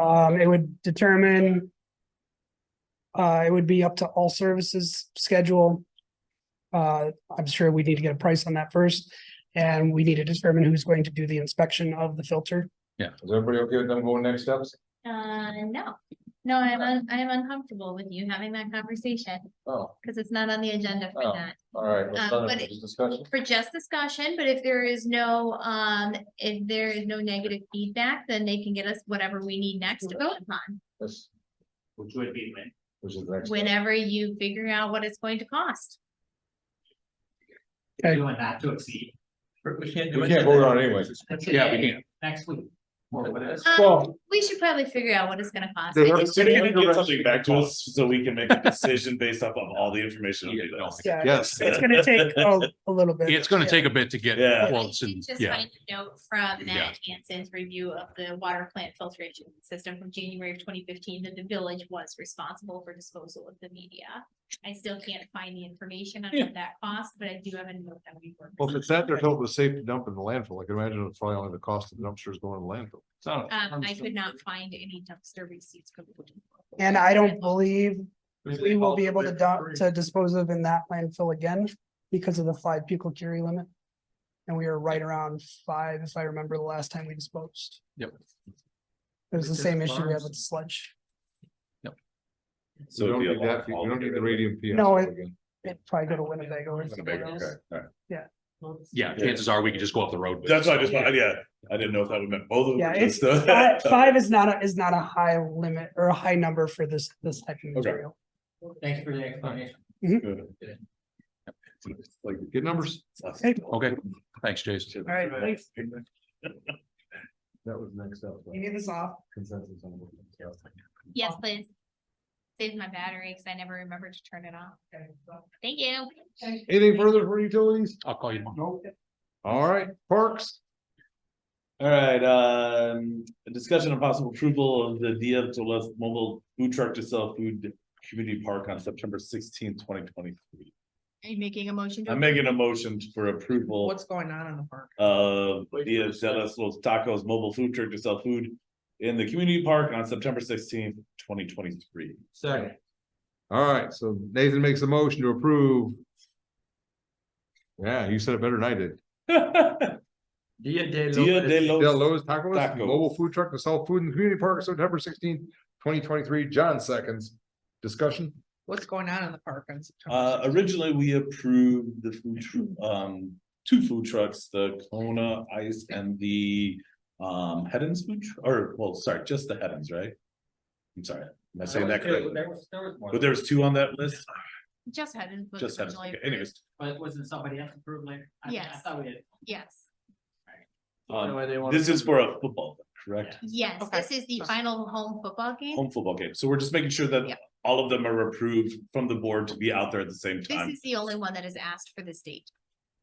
Um, it would determine. Uh, it would be up to all services schedule. Uh, I'm sure we need to get a price on that first, and we need to determine who's going to do the inspection of the filter. Yeah. Is everybody okay with them going next steps? Uh, no, no, I'm, un- I am uncomfortable with you having that conversation, Oh, because it's not on the agenda for Oh. that. all right. let's Um, start but with it- Discussion. For just discussion, but if there is no, um, if there is no negative feedback, then they can get us whatever we need next to vote upon. That's, which would be when. which is the next. step. Whenever you figure out what it's going to cost. Okay. Doing not to exceed. We can't We can't vote on it anyway. That's Yeah, we okay. can't. Next week. Or whatever. Um, Well- We should probably figure out what it's gonna cost. I They're just- they're gonna get something back to us so we can make a decision based off of all the information. Yeah, on this. Yeah, Yes. It's gonna take a, a little bit. It's gonna take a bit to get Yeah. I quotes did and, Just yeah, find a note from Yeah. Matt Hansen's review of the water plant filtration system from January of twenty fifteen that the village was responsible for disposal of the media. I still can't find the information on what that cost, but I do have a note that we were. Well, if it's that, they're told it's safe to dump in the landfill. I can imagine it's probably only the cost of the dumpsters going to landfill. It's not a Um, I firm- could not find any dumpster receipts. And I don't believe There's a we will be able culvert to there for dump, free. to dispose of in that landfill again because of the five pico curie limit. And we were right around five, if I remember the last time we disposed. Yep. It was the Which is same issue we had farms. with sludge. So it'd you be a don't need that, lot you don't need the altogether. radium PSO No, it- again. It'd probably go to Winnebago or somewhere Winnebago, else. okay, all right. yeah, chances are we could just go up the road. with it. That's what I just, wanted- yeah, I didn't know if that would meant both of them. Yeah, or it's just the- Five five is not a, is not a high limit or a high number for this, this type of Okay. material. Thank you for the explanation. Like, Good numbers. Okay, Okay, thanks, Jason. all right, thanks. That was next up. You need this off. Consensus on what- Yes, please. Save my battery, cause I never remember to turn it off. Thank you. Anything further for utilities? I'll call you tomorrow. Nope. All right, parks. All right, um, a discussion of possible approval of the Dia de los mobile food truck to sell food to community park on September sixteenth, twenty twenty-three. Are you making a motion? to I'm making a motion for approval. what's going on in the park. of Dia de los Tacos Mobile Food Truck to sell food in the community park on September sixteenth, twenty twenty-three. Second. All right, so Nathan makes a motion to approve. Yeah, you said it better than I did. Dia de. Dia de los- Del Lo's Tacos, Tacos. mobile food truck to sell food in the community park, September sixteenth, twenty twenty-three. John seconds. Discussion? What's going on in the park? on September Uh, 16th? originally, we approved the food, tr- um, two food trucks, the Kona Ice and the um, Heddens food, tr- or, well, sorry, just the Heddens, right? I'm sorry, am I saying that correctly? There was, there was more. But there was two on that list, Just hadn't. was just Heddens, originally Okay, anyways. But wasn't somebody else approved later? I- I Yes. thought we had. approved. Yes. Um, Anyway, they wanted this is to- for a football, correct? Yes, Okay. this is the final home football game. Home football game, so we're just making sure Yeah. that all of them are approved from the board to be out there at the same This time. is the only one that has asked for this date.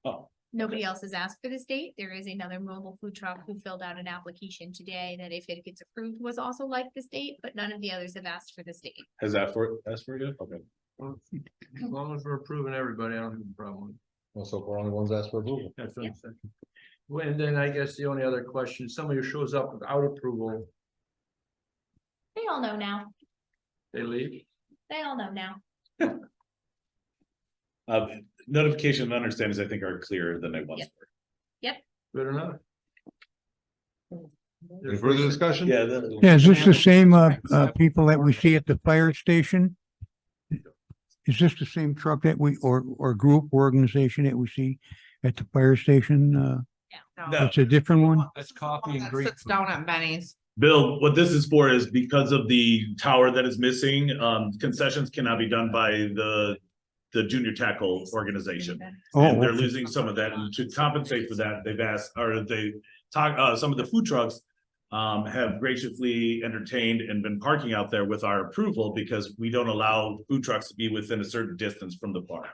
Oh. Nobody else has asked for this date. There is another mobile food truck who filled out an application today that if it gets approved was also like this date, but none of the others have asked for this date. Has that for, that's for you? Okay. As long as we're approving everybody, I don't have a problem. Well, so far only ones asked for approval. That's what I'm saying. Well, and then I guess the only other question, somebody who shows up without approval, They all know now. they leave. They all know now. Uh, notification and understandings, I think, are clearer than they once Yeah. were. Good enough. Any further discussion? Yeah. that- Yeah, is this the same, uh, Right, uh, so- people that we see at the fire station? Is this the same truck that we, or, or group or organization that we see at the fire station? Uh, No. it's a different one? This is the one that Sits down at Benny's. Bill, what this is for is because of the tower that is missing, um, concessions cannot be done by the, the junior tackle organization. And Oh, they're okay. losing some of that, and to compensate for that, they've asked, or they talk, uh, some of the food trucks. Um, have graciously entertained and been parking out there with our approval, because we don't allow food trucks to be within a certain distance from the park.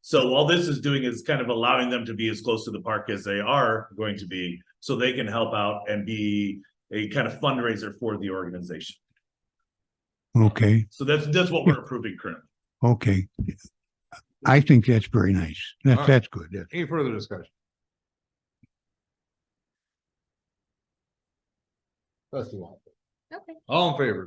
So all this is doing is kind of allowing them to be as close to the park as they are going to be, so they can help out and be. A kind of fundraiser for the organization, Oh, okay, so that's, that's what we're approving currently. okay. I think that's very nice. All right. That's, that's good. That's- Any further discussion? That's the one. Okay. All in favor,